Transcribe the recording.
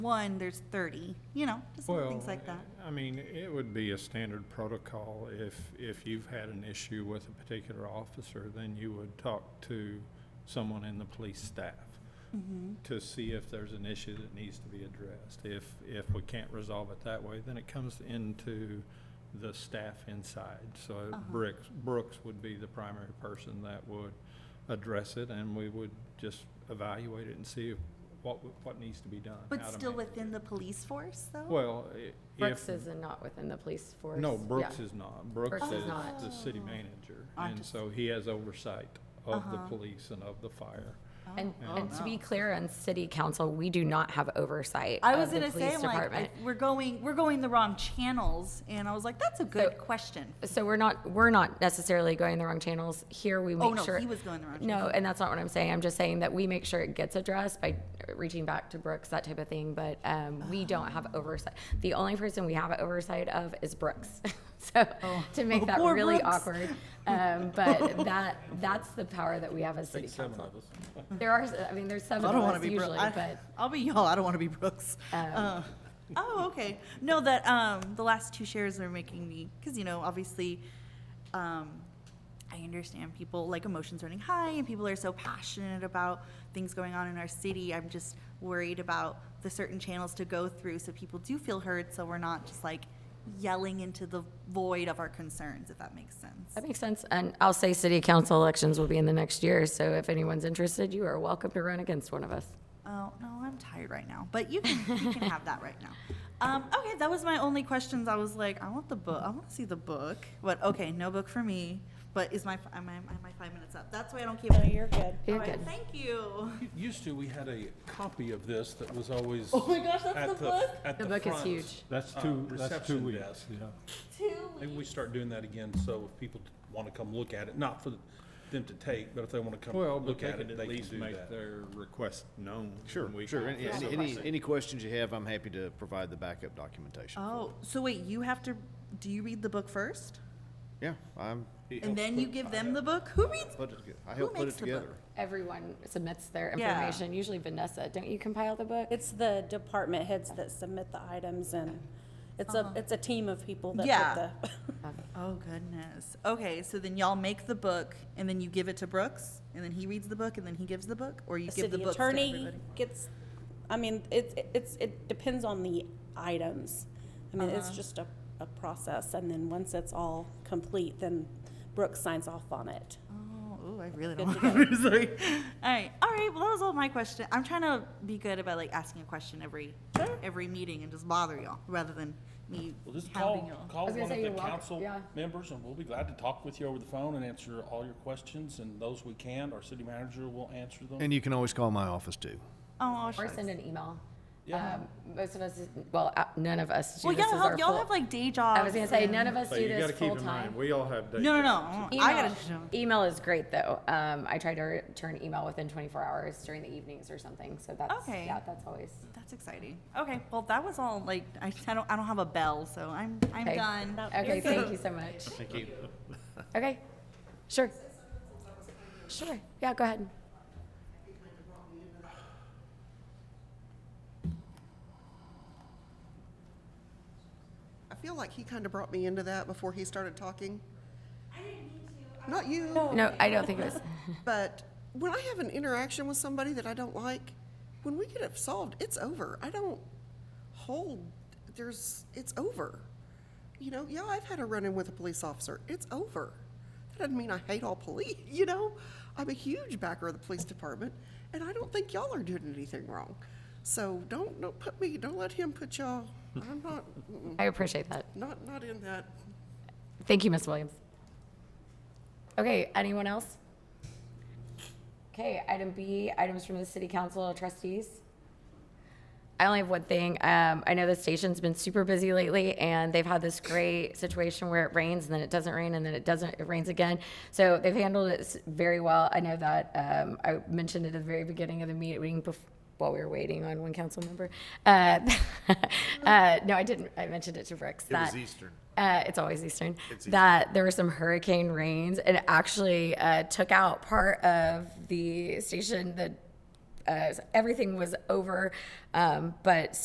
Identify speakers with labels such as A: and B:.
A: one, there's thirty, you know, just little things
B: Well,
A: like that.
B: I mean, it would be a standard protocol if, if you've had an issue with a particular officer, then you would talk to someone in the police staff
A: Mhm.
B: to see if there's an issue that needs to be addressed. If, if we can't resolve it that way, then it comes into the staff inside. So
A: Uh-huh.
B: Brooks, Brooks would be the primary person that would address it, and we would just evaluate it and see what, what needs to be done.
A: But
B: how to
A: still
B: manage it.
A: within the police force, though?
B: Well, i- if.
C: Brooks is not within the police force.
B: No,
C: Yeah.
B: Brooks is not. Brooks
C: Brooks is
B: is
C: not.
B: the city
A: Oh.
B: manager.
A: I
B: And
A: just-
B: so he has oversight of the
A: Uh-huh.
B: police and of the fire.
A: Oh,
C: And,
A: oh,
C: and to be
A: no.
C: clear, on city council, we do not have oversight
A: I was
C: of the
A: gonna say,
C: police
A: I'm like,
C: department.
A: I- we're going, we're going the wrong channels, and I was like, that's a good question.
C: So we're not, we're not necessarily going the wrong channels. Here, we
A: Oh,
C: make
A: no,
C: sure.
A: he was going the wrong channel.
C: No, and that's not what I'm saying. I'm just saying that we make sure it gets addressed by reaching back to Brooks, that type of thing, but, um,
A: Oh.
C: we don't have oversight. The only person we have oversight of is Brooks. So, to make that
A: Oh. Poor
C: really
A: Brooks.
C: awkward, um, but that, that's the power that we have as city council. There are, I mean, there's seven
D: I don't
C: of
D: want
C: us
D: to be Brooks.
C: usually, but.
D: I'll be y'all. I don't want to be Brooks. Uh,
A: Oh, okay. No, that um, the last two shares are making me because you know, obviously, um, I understand people like emotions running high, and people are so passionate about things going on in our city. I'm just worried about the certain channels to go through so people do feel heard, so we're not just like yelling into the void of our concerns, if that makes sense.
C: That makes sense. And I'll say city council elections will be in the next year, so if anyone's interested, you are welcome to run against one of us.
A: Oh no, I'm tired right now. But you can you can have that right now. Um, okay, that was my only questions. I was like, I want the book. I want to see the book. But okay, no book for me. But is my am I, am I five minutes up? That's why I don't keep. No, you're good.
C: You're good.
A: Thank you.
E: Used to, we had a copy of this that was always.
A: Oh my gosh, that's
E: at
A: the book?
E: At
C: The
E: the
C: book is
E: front,
C: huge.
B: That's
E: uh,
B: two, that's two
E: reception
B: weeks.
E: desk.
B: yeah.
E: Maybe
A: Two.
E: we start doing that again, so if people want to come look at it, not for them to take, but if they want to come
B: Well, but
E: look
B: they
E: at it,
B: could
E: they
B: at
E: can
B: least
E: do
B: make
E: that.
B: their request known.
F: Sure,
B: and we
F: sure.
B: can-
F: Any,
E: that's
F: any-
E: what I
F: any,
E: said.
F: any questions you have, I'm happy to provide the backup documentation. for.
A: Oh, so wait, you have to. Do you read the book first,
F: Yeah, I'm,
A: and then you give them the book? Who reads?
F: put it, toge- I helped put
A: makes
F: it
A: the book?
F: together.
C: Everyone submits their
A: Yeah.
C: information, usually Vanessa, don't you compile the book?
G: It's the department heads that submit the items and it's a, it's a team of people
A: Uh-huh. Yeah.
G: that put the.
A: Oh goodness. Okay, so then y'all make the book, and then you give it to Brooks, and then he reads the book, and then he gives the book, or you
G: The
A: give the
G: city
A: book to
G: attorney
A: everybody.
G: gets, I mean, it's, it's, it depends on the items. I mean,
A: Uh-huh.
G: it's just a, a process and then once it's all complete, then Brooke signs off on it.
A: Oh, ooh, I really don't want to Sorry. All right, all right. Well, that was all my question. I'm trying to be good about like asking a question every every meeting and just bother y'all rather than me
E: Well, just
A: hounding
E: call,
A: y'all.
C: I
E: call
C: was gonna
E: one of
C: say
E: the
C: you're welcome-
E: council
C: yeah.
E: members, and we'll be glad to talk with you over the phone and answer all your questions, and those we can, our city manager will answer them.
F: And you can always call my office too.
A: Oh,
C: Or
A: shucks.
C: send an email.
E: Yeah.
C: Um, Most of us, well, uh, none of us do
A: well,
C: this
A: y'all
C: as our
A: have y'all
C: full-
A: have like day jobs.
C: I was gonna say,
A: and-
C: none of us
B: So
C: do
B: you gotta
C: this
B: keep
C: full
B: in mind,
C: time.
B: we all have day
A: No, no,
B: jobs.
A: no. I
C: Email,
A: gotta.
C: email is great though. Um, I try to return email within twenty-four hours during the evenings or something, so that's,
A: Okay.
C: yeah, that's always.
A: That's exciting. Okay, well, that was all. Like, I, I don't I don't have a bell, so I'm I'm
C: Okay.
A: done.
C: Okay, thank you so much.
F: Thank you.
C: Okay, sure. Sure, yeah, go ahead.
H: I feel like he kind of brought me into that before he started talking. I didn't mean to. Not you,
C: No, I don't think it was.
H: but when I have an interaction with somebody that I don't like, when we get it solved, it's over. I don't hold, there's, it's over. You know, yeah, I've had a run-in with a police officer. It's over. That doesn't mean I hate all police, you know? I'm a huge backer of the police department, and I don't think y'all are doing anything wrong. So don't, don't put me, don't let him put y'all, I'm not, mm-mm,
C: I appreciate that.
H: not, not in that.
C: Thank you, Ms. Williams. Okay, anyone else? Okay, item B, items from the city council trustees. I only have one thing. Um, I know the station's been super busy lately and they've had this great situation where it rains and then it doesn't rain and then it doesn't, it rains again. So they've handled it s- very well. I know that, um, I mentioned it at the very beginning of the meeting bef- while we were waiting on one council member. Uh, uh, no, I didn't. I mentioned it to Rex.
F: It was
C: that-
F: Eastern.
C: uh, it's always Eastern, that there were some hurricane rains and it actually uh, took out part of the station. The uh, everything was over, um, but